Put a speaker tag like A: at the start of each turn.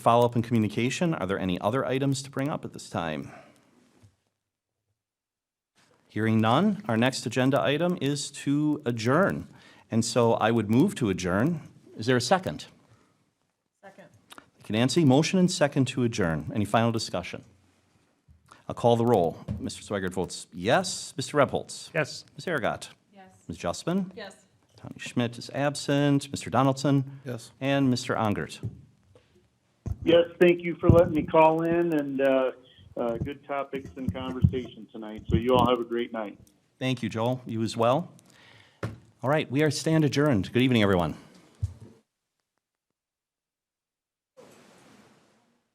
A: Follow-up and communication, are there any other items to bring up at this time? Hearing none, our next agenda item is to adjourn. And so I would move to adjourn. Is there a second?
B: Second.
A: Thank you, Nancy. Motion and second to adjourn. Any final discussion? I'll call the roll. Mr. Swigert votes yes. Mr. Repholz?
C: Yes.
A: Ms. Aragot?
B: Yes.
A: Ms. Justman?
B: Yes.
A: Tommy Schmidt is absent. Mr. Donaldson?
D: Yes.
A: And Mr. Ongert?
E: Yes, thank you for letting me call in and uh, uh, good topics and conversation tonight. So you all have a great night.
A: Thank you, Joel. You as well. All right, we are stand adjourned. Good evening, everyone.